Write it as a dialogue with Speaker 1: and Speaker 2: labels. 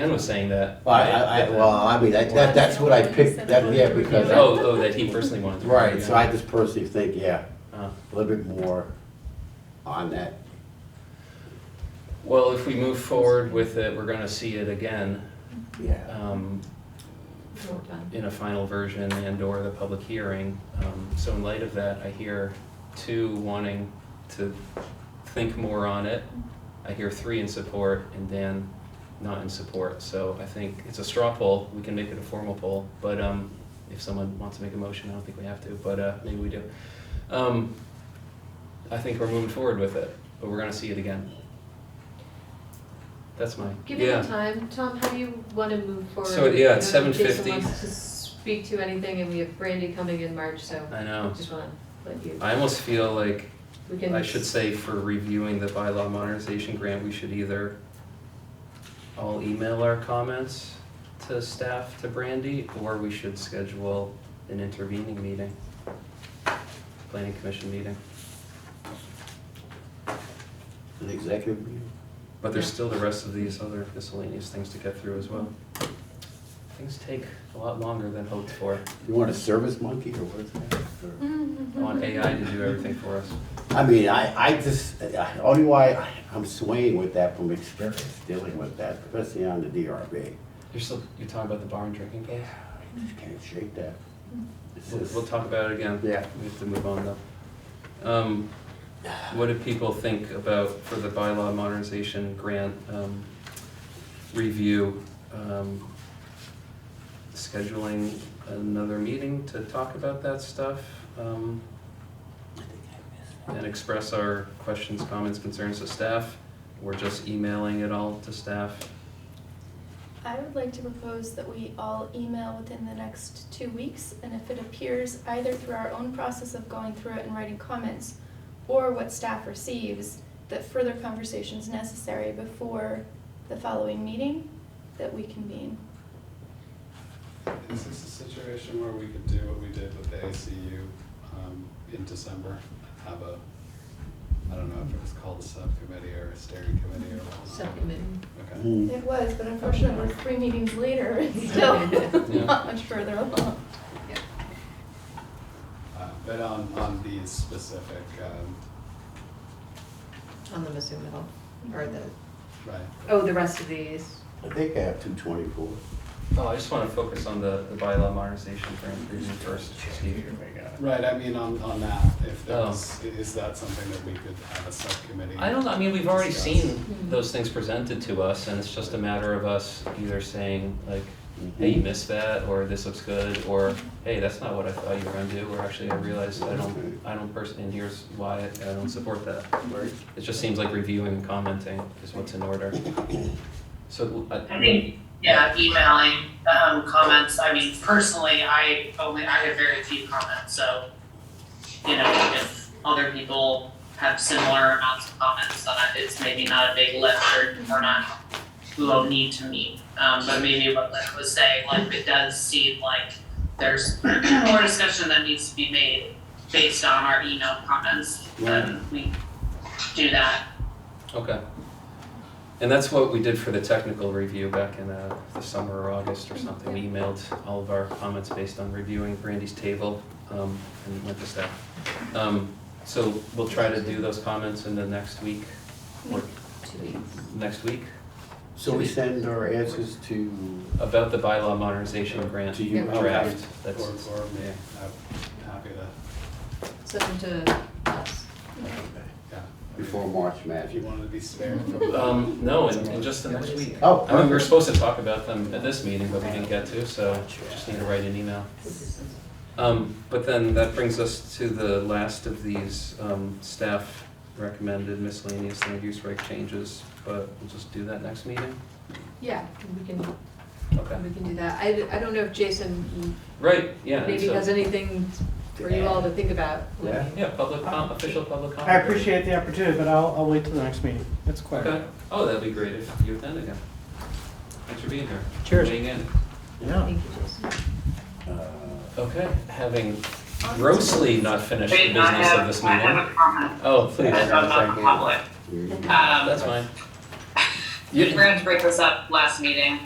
Speaker 1: Ken was saying that.
Speaker 2: Well, I, I, well, I mean, that, that, that's what I picked, that, yeah, because, I-
Speaker 1: Oh, oh, that he personally wanted to.
Speaker 2: right, so I just personally think, yeah,
Speaker 1: Uh,
Speaker 2: a little bit more on that.
Speaker 1: Well, if we move forward with it, we're gonna see it again,
Speaker 2: Yeah,
Speaker 1: um,
Speaker 3: Well done.
Speaker 1: in a final version and or the public hearing. Um, So in light of that, I hear two wanting to think more on it. I hear three in support and Dan not in support. So I think it's a straw poll. We can make it a formal poll. But um, if someone wants to make a motion, I don't think we have to, but uh, maybe we do. Um, I think we're moving forward with it, but we're gonna see it again. That's my,
Speaker 3: Give it
Speaker 1: yeah.
Speaker 3: a time. Tom, how do you want to move forward?
Speaker 1: So, yeah, it's
Speaker 3: I don't know if
Speaker 1: 7:50.
Speaker 3: Jason wants to speak to anything, and we have Brandy coming in March, so
Speaker 1: I know.
Speaker 3: just want to let you,
Speaker 1: I almost feel like
Speaker 3: we can.
Speaker 1: Oh. I should say for reviewing the bylaw modernization grant, we should either all email our comments to staff, to Brandy, or we should schedule an intervening meeting, planning commission meeting.
Speaker 2: an executive meeting.
Speaker 1: But there's
Speaker 3: Yeah.
Speaker 1: still the rest of these other miscellaneous things to get through as well. Things take a lot longer than hoped for.
Speaker 2: You want a service monkey or what is that? Or-
Speaker 1: I want AI to do everything for us.
Speaker 2: I mean, I, I just, I- only why I- I'm swaying with that from experience dealing with that, especially on the DRB.
Speaker 1: You're still, you're talking about the bar and drinking place?
Speaker 2: I just can't shake that. It's
Speaker 1: We'll,
Speaker 2: just-
Speaker 1: we'll talk about it again.
Speaker 2: Yeah.
Speaker 1: We have to move on though. Um, what do people think about for the bylaw modernization grant, um, review? um, Scheduling another meeting to talk about that stuff, um, and express our questions, comments, concerns to staff? Or just emailing it all to staff?
Speaker 4: I would like to propose that we all email within the next two weeks, and if it appears either through our own process of going through it and writing comments, or what staff receives, that further conversation is necessary before the following meeting that we convene.
Speaker 5: Is this a situation where we could do what we did with the ACU um, in December? Have a, I don't know if it was called a subcommittee or a steering committee or what.
Speaker 3: Subcommittee.
Speaker 5: Okay.
Speaker 2: Hmm.
Speaker 4: It was, but unfortunately, we're three meetings later, it's still
Speaker 1: Yeah.
Speaker 4: not much further along.
Speaker 5: Uh, But on, on these specific, um,
Speaker 3: On the Mizzou Middle, or the,
Speaker 5: right,
Speaker 3: oh, the rest of these.
Speaker 2: I think I have two twenty-four.
Speaker 1: Oh, I just wanna focus on the, the bylaw modernization grant review first, Steve.
Speaker 5: right, I mean, on, on that, if there
Speaker 1: Oh.
Speaker 5: was, i- is that something that we could have a subcommittee?
Speaker 1: I don't know, I mean, we've already
Speaker 5: discuss?
Speaker 1: seen those things presented to us, and it's just a matter of us either saying, like, hey, you missed that, or this looks good, or, hey, that's not what I thought you were gonna do, or actually, I realized I don't, I don't personally, and here's why I I don't support that.
Speaker 2: Right.
Speaker 1: It just seems like reviewing and commenting is what's in order. So, I,
Speaker 6: I think, yeah, emailing, um, comments, I mean, personally, I only, I have very few comments, so, you know, if other people have similar amounts of comments, then I- it's maybe not a big lift or, or not, we will need to meet. Um, but maybe what Lynn was saying, like, it does seem like there's more discussion that needs to be made based on our email comments, then we do that.
Speaker 1: okay. And that's what we did for the technical review back in, uh, the summer or August or something, we emailed all of our comments based on reviewing Brandy's table, um, and went to staff. Um, so we'll try to do those comments in the next week, or
Speaker 3: Two weeks.
Speaker 1: next week,
Speaker 2: So we send our answers to,
Speaker 1: about the bylaw modernization grant
Speaker 2: To you.
Speaker 1: draft,
Speaker 5: Or,
Speaker 1: that's,
Speaker 5: or me, I'm happy to,
Speaker 3: Send them to us.
Speaker 5: yeah.
Speaker 2: before March
Speaker 5: If you
Speaker 2: Magic.
Speaker 5: wanted to be spared from.
Speaker 1: um, no, in, in just the next week.
Speaker 2: Oh,
Speaker 1: I mean, we were
Speaker 2: perfect.
Speaker 1: supposed to talk about them at this meeting, but we didn't get to, so just need to write an email. Um, but then that brings us to the last of these, um, staff recommended miscellaneous land use reg changes, but we'll just do that next meeting?
Speaker 3: Yeah, we can, we
Speaker 1: Okay.
Speaker 3: can do that. I, I don't know if Jason
Speaker 1: Right, yeah, and
Speaker 3: maybe
Speaker 1: so,
Speaker 3: has anything for you all to think about. when
Speaker 2: Yeah.
Speaker 3: we-
Speaker 1: yeah, public com, official public comment.
Speaker 7: I appreciate the opportunity, but I'll, I'll wait till the next meeting. It's quick.
Speaker 1: Okay, oh, that'd be great if you attend again. Thanks for being here.
Speaker 7: Cheers.
Speaker 1: Weighing in.
Speaker 2: Yeah.
Speaker 3: Thank you, Jason.
Speaker 2: Uh,
Speaker 1: Okay, having grossly not finished the
Speaker 6: Wait, I
Speaker 1: business of
Speaker 6: have-
Speaker 1: this
Speaker 6: I
Speaker 1: meeting.
Speaker 6: have a comment.
Speaker 1: Oh, please.
Speaker 6: As I'm not public.
Speaker 2: here you go.
Speaker 6: Um,
Speaker 1: That's fine. You-
Speaker 6: We're gonna have to break this up last meeting.